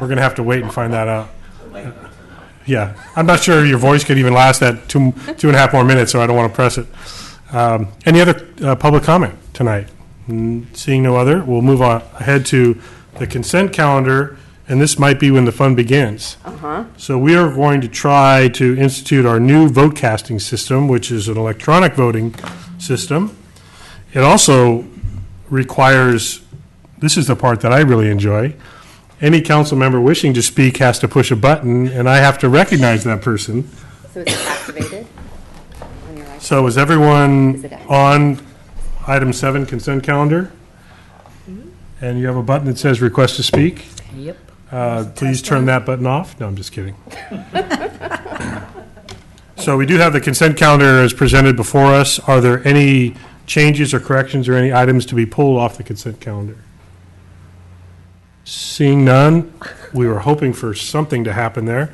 We're gonna have to wait and find that out. Yeah, I'm not sure your voice could even last that two, two and a half more minutes, so I don't want to press it. Um, Any other uh, public comment tonight? Mm, Seeing no other, we'll move on ahead to the consent calendar, and this might be when the fun begins. So we are going to try to institute our new vote casting system, which is an electronic voting system. It also requires, this is the part that I really enjoy, any council member wishing to speak has to push a button, and I have to recognize that person. So is it activated on your iPhone? So is Is everyone it active? on item seven consent calendar? And you have a button that says request to speak? Yep. Uh, Please turn that button off. No, I'm just kidding. So we do have the consent calendar as presented before us. Are there any changes or corrections or any items to be pulled off the consent calendar? Seeing none, we were hoping for something to happen there.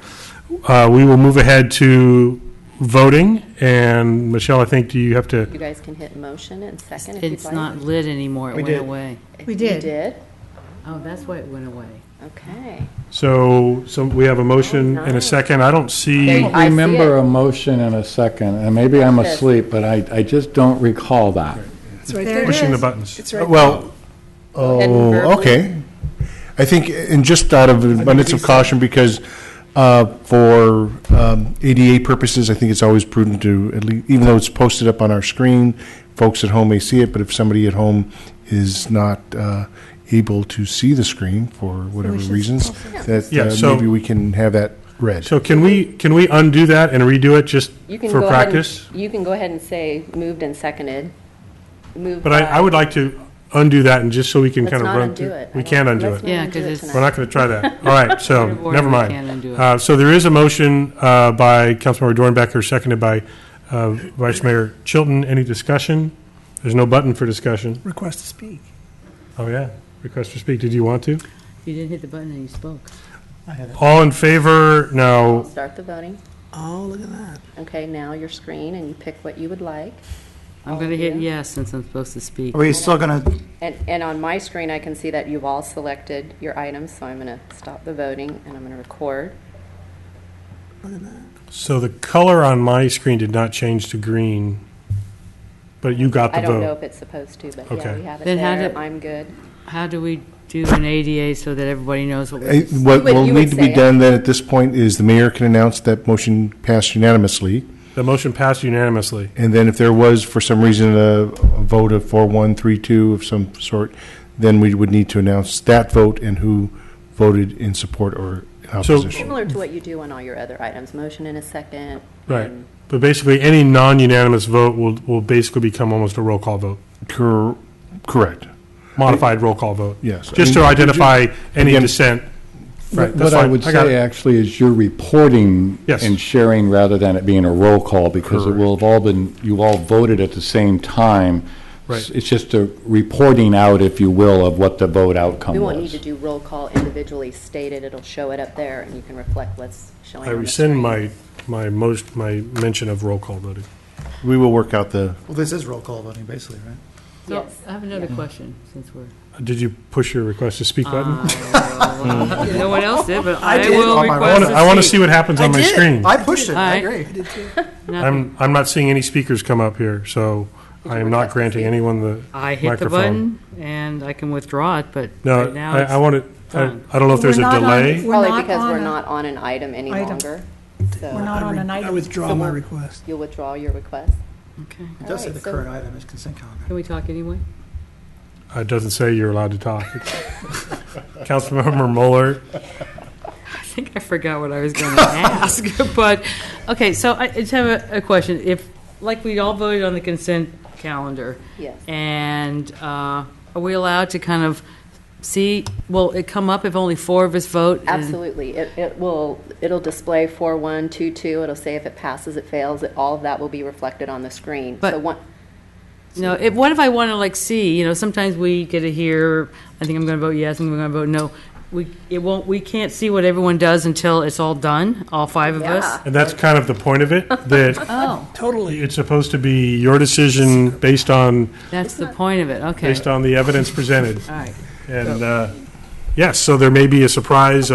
Uh, We will move ahead to voting, and Michelle, I think, do you have to, You guys can hit motion and second if you'd like. It's not lit anymore, it went away. We You did. did? Oh, that's why it went away. Okay. so, so we have a motion and a second. I don't Oh, There see, you- I I see remember it. a motion and a second, and maybe I'm Yes. asleep, but I, I just don't recall that. It's right there. pushing the buttons. Well, And verbally? oh, okay. I think, and just out of abundance of caution, because uh, for um, ADA purposes, I think it's always prudent to, at least, even though it's posted up on our screen, folks at home may see it, but if somebody at home is not uh, able to see the screen for whatever should reasons, that Yeah, uh, so- maybe we can have that read. So can we, can we undo that and redo it just You can for go ahead and- practice? You can go ahead and say moved and seconded. Moved But I, I by- would like to undo that and just so we can Let's kind of not run undo through. it. I We don't- can't undo let's it. not Yeah, undo 'cause it it's- tonight. We're not going to try that. All right, so, Point of order, never we mind. can't undo it. Uh, So there is a motion uh, by Councilmember Dornbecker, seconded by uh, Vice Mayor Chilton. Any discussion? There's no button for discussion. Request to speak. Oh, yeah. Request to speak. Did you want to? You didn't hit the button and you spoke. All in favor? No. Start the voting. Oh, look at that. Okay, now your screen and you pick what you would like. I'm going to hit yes since I'm supposed to speak. Are we still gonna, And, and on my screen, I can see that you've all selected your items, so I'm going to stop the voting and I'm going to record. So the color on my screen did not change to green, but you got I the don't know vote. if it's supposed to, but yeah, Okay. we have it Then how there. do- I'm good. How do we do an ADA so that everybody knows what Uh, we're... What would- will you would need to be say it. done then at this point is the mayor can announce that motion passed unanimously. The motion passed unanimously. And then if there was, for some reason, a a vote of four, one, three, two of some sort, then we would need to announce that vote and who voted in support or in opposition. Similar to what you do on all your other items, motion in a second. Right. and- But basically, any non-unanimous vote will, will basically become almost a roll call vote, Cor- Correct, modified roll call vote, yes. just to I mean, identify any Again- dissent. Right, that's What I fine. would I got say it. actually is you're reporting Yes. and sharing rather than it being a roll call, because it will have all been, you all voted at the same time. Right. It's just a reporting out, if you will, of what the vote outcome We was. won't need to do roll call individually stated, it'll show it up there, and you can reflect what's showing uh, I on the rescind screen. my, my most, my mention of roll call voting. We will work out the, well, this is roll call voting, basically, right? So, Yes. I have another question, since we're... Did you push your request to speak button? No one else did, but I did. will On my I want request to to, speak. I want to see what happens on my I did. screen. I pushed it. I Alright. agree. Nothing. I'm, I'm not seeing any speakers come up here, so I am not request to granting speak? anyone the I hit the microphone. button, and I can withdraw it, but No, right now I, it's... I want to, I done. I don't know if there's a We're not on- delay. not Probably because on we're a- not on an item any Item. longer, We're so not on an I item. withdraw my request. you'll withdraw your request. Mm-hmm. Okay. It does say Alright, the so- current item is consent calendar. Can we talk anyway? It doesn't say you're allowed to talk. Councilmember Mueller, I think I forgot what I was going to ask, but, okay, so I I just have a, a question. If, like, we all voted on the consent calendar, Yes. and uh, are we allowed to kind of see, will it come up if only four of us vote? and- Absolutely, it, it will, it'll display four, one, two, two, it'll say if it passes, it fails, it- all of that will be reflected on the screen. But- So one, No, if, what if I want to, like, see, you know, sometimes we get to hear, I think I'm going to vote yes, I think I'm going to vote no. We, it won't, we can't see what everyone does until it's all done, all five of us? Yeah. and that's kind of the point of it, that Oh, Totally. it's supposed to be your decision based on, that's the point of it, okay. based on the evidence presented. All right. And, uh, yes, so there may be a surprise